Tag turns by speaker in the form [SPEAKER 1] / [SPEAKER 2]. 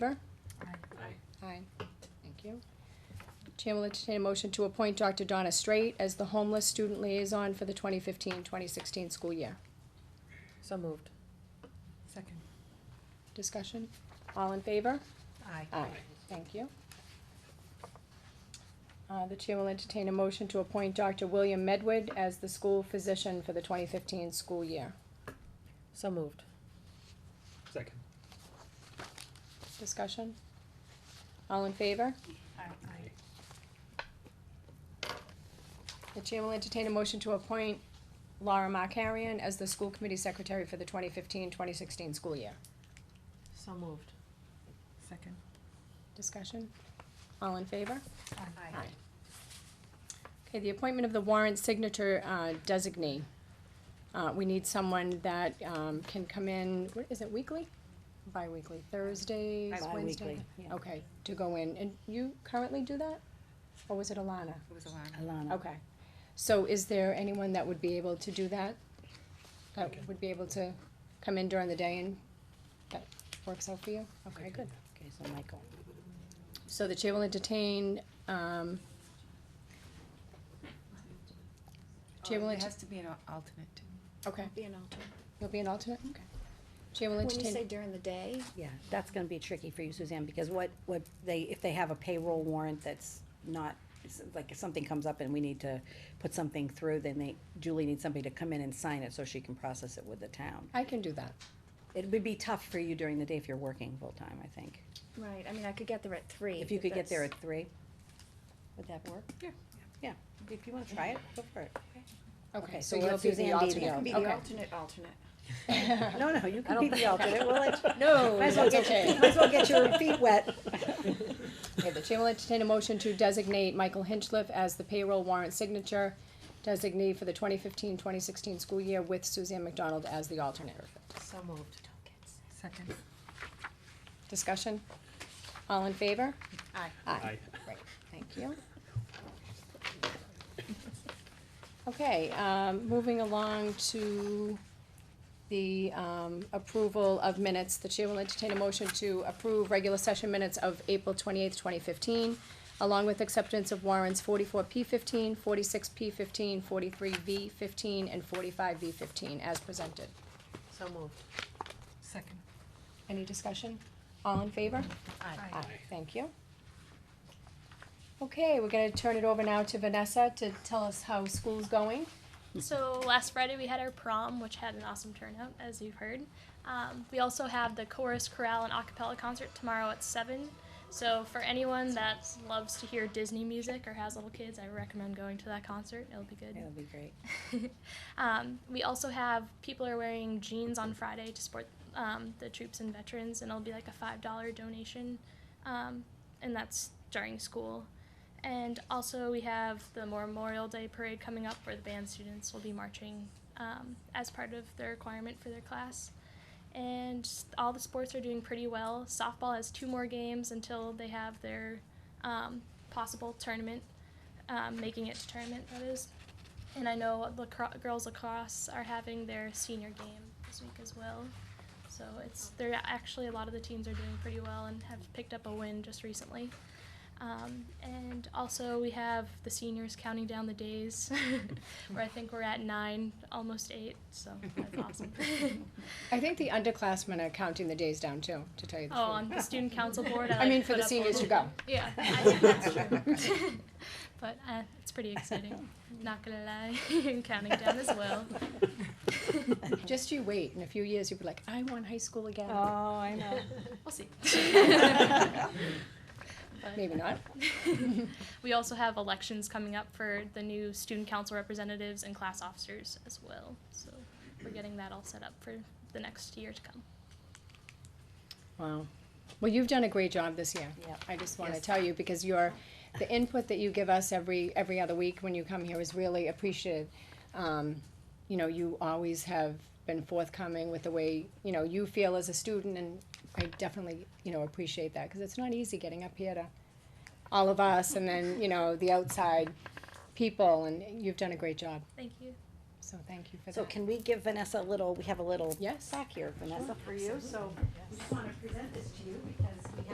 [SPEAKER 1] Favor?
[SPEAKER 2] Aye.
[SPEAKER 1] Aye. Thank you. Chair will entertain a motion to appoint Dr. Donna Straight as the homeless student liaison for the 2015-2016 school year.
[SPEAKER 3] So moved. Second.
[SPEAKER 1] Discussion? All in favor?
[SPEAKER 3] Aye.
[SPEAKER 1] Aye. Thank you. Uh, the chair will entertain a motion to appoint Dr. William Medwood as the school physician for the twenty fifteen school year.
[SPEAKER 3] So moved.
[SPEAKER 2] Second.
[SPEAKER 1] Discussion? All in favor?
[SPEAKER 3] Aye.
[SPEAKER 1] The chair will entertain a motion to appoint Laura Markarian as the school committee secretary for the 2015-2016 school year.
[SPEAKER 3] So moved. Second.
[SPEAKER 1] Discussion? All in favor?
[SPEAKER 3] Aye.
[SPEAKER 1] Okay, the appointment of the warrant signature uh, designee. Uh, We need someone that um, can come in, what is it, weekly? Bi-weekly, Thursdays, Wednesday?
[SPEAKER 4] Bi-weekly, yeah.
[SPEAKER 1] Okay, to go in, and you currently do that? Or was it Alana?
[SPEAKER 5] It was Alana.
[SPEAKER 4] Oh, Alana.
[SPEAKER 1] Okay, so is there anyone that would be able to do that? That
[SPEAKER 2] Okay.
[SPEAKER 1] would be able to come in during the day and that works out for you? Okay, good.
[SPEAKER 4] Okay, so Michael.
[SPEAKER 1] So the chair will entertain, um, Chair will
[SPEAKER 5] Oh, There
[SPEAKER 1] enter-
[SPEAKER 5] has to be an al- alternate too.
[SPEAKER 1] okay,
[SPEAKER 6] Be an alternate.
[SPEAKER 1] you'll be an alternate? Okay. Chair will
[SPEAKER 6] When you
[SPEAKER 1] entertain.
[SPEAKER 6] say during the day,
[SPEAKER 4] Yeah, that's gonna be tricky for you, Suzanne, because what, what they, if they have a payroll warrant that's not, it's like if something comes up and we need to put something through, then they, Julie needs somebody to come in and sign it so she can process it with the town.
[SPEAKER 1] I can do that.
[SPEAKER 4] It would be tough for you during the day if you're working full-time, I think.
[SPEAKER 6] right, I mean, I could get there at three.
[SPEAKER 4] If you
[SPEAKER 6] but
[SPEAKER 4] could get there
[SPEAKER 6] that's-
[SPEAKER 4] at three, would that work?
[SPEAKER 5] Yeah.
[SPEAKER 4] Yeah, if you wanna try it, go for it.
[SPEAKER 1] Okay,
[SPEAKER 4] Okay,
[SPEAKER 1] so
[SPEAKER 4] so we'll
[SPEAKER 1] you'll
[SPEAKER 4] have
[SPEAKER 1] be the
[SPEAKER 4] Suzanne be the
[SPEAKER 1] alternate.
[SPEAKER 6] Be
[SPEAKER 1] Okay.
[SPEAKER 6] the alternate, alternate.
[SPEAKER 4] No, no, you can be the alternate, we'll let you.
[SPEAKER 1] No,
[SPEAKER 4] Might as well
[SPEAKER 1] that's
[SPEAKER 4] get,
[SPEAKER 1] okay.
[SPEAKER 4] your- might as well get your feet wet.
[SPEAKER 1] Okay, the chair will entertain a motion to designate Michael Hinchliff as the payroll warrant signature designee for the 2015-2016 school year with Suzanne McDonald as the alternate.
[SPEAKER 3] So moved. Second.
[SPEAKER 1] Discussion? All in favor?
[SPEAKER 3] Aye.
[SPEAKER 1] Aye. Great, thank you. Okay, um, moving along to the, um, approval of minutes. The chair will entertain a motion to approve regular session minutes of April twenty-eighth, twenty fifteen, along with acceptance of warrants forty-four P fifteen, forty-six P fifteen, forty-three V fifteen, and forty-five V fifteen as presented.
[SPEAKER 3] So moved. Second.
[SPEAKER 1] Any discussion? All in favor?
[SPEAKER 3] Aye.
[SPEAKER 1] Aye, Ah, Thank you. Okay, we're gonna turn it over now to Vanessa to tell us how school's going.
[SPEAKER 7] So last Friday we had our prom, which had an awesome turnout, as you've heard. Um, we also have the chorus, chorale, and a cappella concert tomorrow at seven. So for anyone that loves to hear Disney music or has little kids, I recommend going to that concert. It'll be good.
[SPEAKER 4] That'll be great.
[SPEAKER 7] Um, we also have people are wearing jeans on Friday to support um, the troops and veterans, and it'll be like a five dollar donation, um, and that's during school. And also we have the Memorial Day parade coming up, where the band students will be marching um, as part of the requirement for their class. And all the sports are doing pretty well. Softball has two more games until they have their um, possible tournament, um, making it to tournament. That is. And I know the cro- girls lacrosse are having their senior game this week as well. So it's they're actually a lot of the teams are doing pretty well and have picked up a win just recently. Um, and also we have the seniors counting down the days, where I think we're at nine, almost eight. So that's awesome.
[SPEAKER 1] I think the underclassmen are counting the days down too, to tell you the
[SPEAKER 7] oh,
[SPEAKER 1] truth.
[SPEAKER 7] on the student council board. I,
[SPEAKER 1] I
[SPEAKER 7] like,
[SPEAKER 1] mean, for
[SPEAKER 7] put
[SPEAKER 1] the
[SPEAKER 7] up
[SPEAKER 1] seniors
[SPEAKER 7] all-
[SPEAKER 1] to go.
[SPEAKER 7] Yeah, I think that's true. but uh, it's pretty exciting. Not gonna lie, and counting down as well.
[SPEAKER 1] Just you wait, in a few years, you'll be like, I want high school again.
[SPEAKER 4] I know.
[SPEAKER 7] We'll see.
[SPEAKER 1] Maybe not.
[SPEAKER 7] We also have elections coming up for the new student council representatives and class officers as well. So we're getting that all set up for the next year to come.
[SPEAKER 1] Wow. Well, you've done a great job this year.
[SPEAKER 4] Yep.
[SPEAKER 1] I just wanna
[SPEAKER 4] Yes.
[SPEAKER 1] tell you, because your, the input that you give us every, every other week when you come here is really appreciated. Um, you know, you always have been forthcoming with the way, you know, you feel as a student, and I definitely, you know, appreciate that, cause it's not easy getting up here to all of us, and then, you know, the outside people, and you've done a great job,
[SPEAKER 7] Thank you.
[SPEAKER 1] so thank you for that.
[SPEAKER 4] So can we give Vanessa a little, we have a little
[SPEAKER 1] Yes.
[SPEAKER 4] sack here, Vanessa.
[SPEAKER 8] for you, so we want to present this to you because